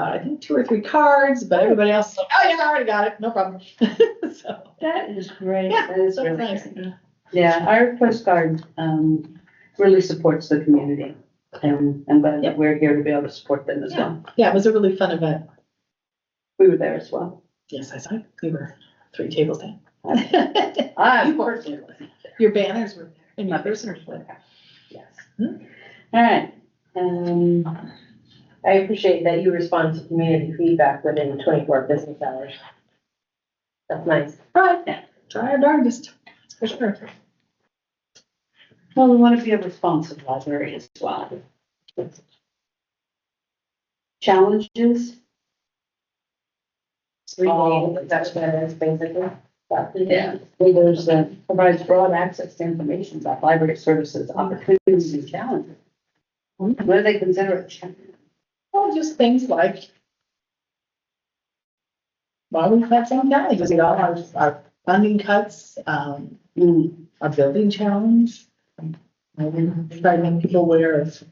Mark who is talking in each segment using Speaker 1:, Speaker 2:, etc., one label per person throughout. Speaker 1: I think, two or three cards, but everybody else is like, oh, yeah, I already got it, no problem. So,
Speaker 2: That is great.
Speaker 1: Yeah,
Speaker 2: That is
Speaker 1: so
Speaker 2: really
Speaker 1: it's nice.
Speaker 2: great. Yeah, our Coast Guard um, really supports the community. And I'm glad that we're here to be able to support them as well.
Speaker 1: Yeah, it was a really fun event.
Speaker 2: We were there as well.
Speaker 1: Yes, I saw, it. we were three tables down.
Speaker 2: I
Speaker 1: You were.
Speaker 2: personally was.
Speaker 1: Your banners were there and your
Speaker 2: My
Speaker 1: prisoners were there.
Speaker 2: Yes.
Speaker 1: Hmm.
Speaker 2: All right. Um,
Speaker 3: I appreciate that you respond to community feedback within twenty-four business hours. That's nice.
Speaker 1: Right, try our darndest, that's for sure.
Speaker 2: Well, we want to be a responsive library as well. Challenges? Oh.
Speaker 3: Reading, that's what it is basically. But-
Speaker 2: Yeah, leaders that provides broad access to information about library services, opportunities and challenges. What do they consider a challenge?
Speaker 1: Well, just things like. Why we've had some challenges, you know, our, our funding cuts, um,
Speaker 2: Mm,
Speaker 1: our building challenge. And try to make people aware of,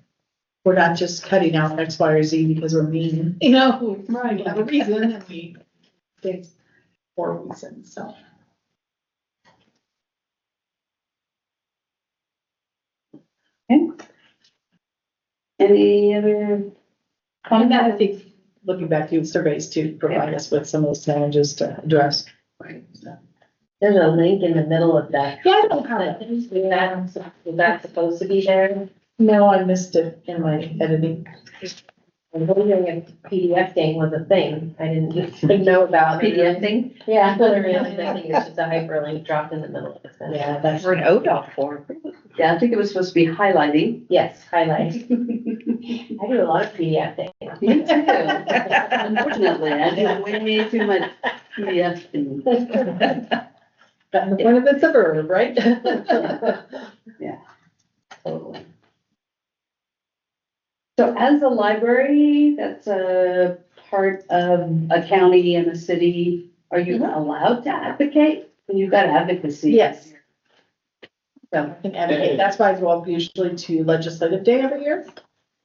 Speaker 1: we're not just cutting out X, Y, or Z because we're mean, you know, we have a reason and we think for a reason, so.
Speaker 2: Any other
Speaker 1: And that,
Speaker 2: comment?
Speaker 1: I think, looking back to surveys to provide us with some of those challenges to address. Right.
Speaker 3: There's a link in the middle of that.
Speaker 1: Yeah, I don't have it.
Speaker 3: Is that, is that supposed to be there?
Speaker 1: No, I missed it in my editing.
Speaker 3: I'm wondering if PDF thing was a thing. I didn't even know about PDF thing. Yeah. But really, I think it's just a hyperlink dropped in the middle of it.
Speaker 1: Yeah, that's.
Speaker 4: an ODOT form.
Speaker 2: Yeah, I think it was supposed to be highlighting.
Speaker 3: Yes, highlight. I do a lot of PDF things.
Speaker 2: Me too. Unfortunately, I do way too much PDF thing.
Speaker 1: That's the point of it's a verb, right?
Speaker 2: Totally. So as a library, that's a part of a county and a city, are you allowed to advocate? You've got advocacy.
Speaker 1: Yes.
Speaker 2: So,
Speaker 1: And advocate, that's why I go up usually to legislative day every year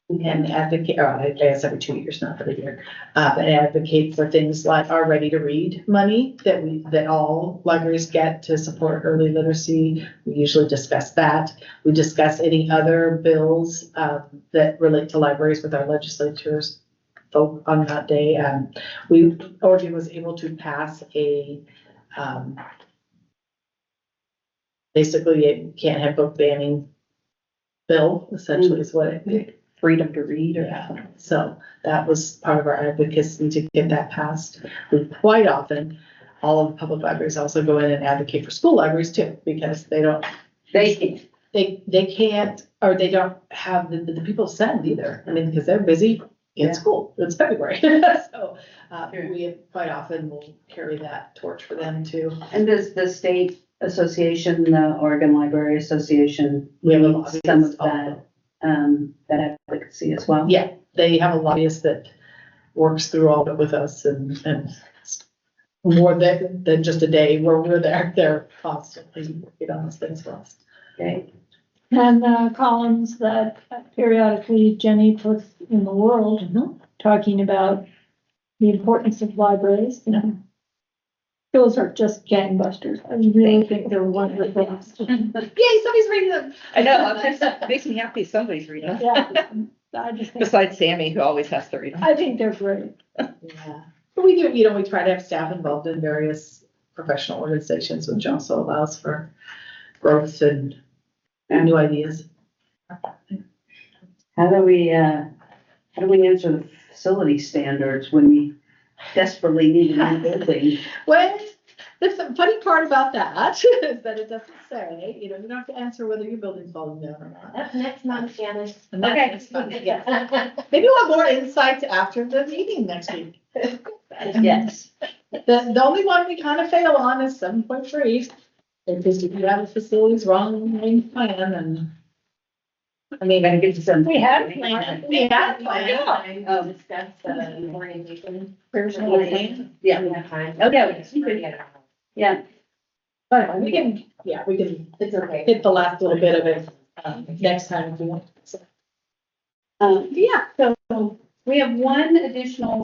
Speaker 1: and advocate, or I guess every two years, not every year. Uh, and advocate for things like our ready to read money that we, that all libraries get to support early literacy. We usually discuss that. We discuss any other bills, uh, that relate to libraries with our legislatures vote on that day. Um, we, Oregon was able to pass a, um, basically you can't have book banning bill, essentially is what it,
Speaker 4: Freedom to read or.
Speaker 1: yeah. So that was part of our advocacy to get that passed. We quite often, all of the public libraries also go in and advocate for school libraries too, because they don't
Speaker 2: They can,
Speaker 1: they they can't or they don't have the, the people send either. I mean, because they're busy in
Speaker 2: Yeah.
Speaker 1: school. It's February, so uh,
Speaker 2: Sure.
Speaker 1: we quite often will carry that torch for them too.
Speaker 2: and does the state association, the Oregon Library Association,
Speaker 1: We have a
Speaker 2: Some
Speaker 1: lobbyist.
Speaker 2: of
Speaker 1: also.
Speaker 2: um, that advocacy as well?
Speaker 1: Yeah, they have a lobbyist that works through all of it with us and and more than than just a day where we're there. They're constantly working on those things for us.
Speaker 2: Okay,
Speaker 5: And uh, columns that periodically Jenny puts in the world, talking about the importance of libraries. you know. Those are just gangbusters. I really think they're wonderful.
Speaker 1: Yay! Somebody's reading them.
Speaker 4: I know, I'm just- it makes me happy somebody's reading them,
Speaker 5: Yeah, I just think,
Speaker 4: besides Sammy, who always has to read them.
Speaker 5: I think they're great.
Speaker 1: Yeah, but we do, you know, we try to have staff involved in various professional organizations, which also allows for growth and new ideas.
Speaker 2: how do we, uh, how do we answer the facility standards when we desperately need a new building?
Speaker 1: Well, the f- funny part about that is that it doesn't say, you know, you don't have to answer whether your building's falling down or not.
Speaker 3: That's next month, Janice.
Speaker 1: And that's-
Speaker 4: Okay.
Speaker 1: that's fun, yes. Maybe we'll have more insights after the meeting next week.
Speaker 2: Yes.
Speaker 1: The, the only one we kind of fail on is seven point three. Because if you have a facilities wrong main plan and.
Speaker 2: I mean, I get to some.
Speaker 4: We had
Speaker 1: We had
Speaker 2: Um,
Speaker 3: Discuss the orientation.
Speaker 1: Where's
Speaker 2: Yeah,
Speaker 3: Oh,
Speaker 2: Oh, yeah. yeah,
Speaker 1: But we can, yeah, we can
Speaker 3: It's okay.
Speaker 1: hit the last little bit of it um, next time if you want.
Speaker 2: um, yeah, so we have one additional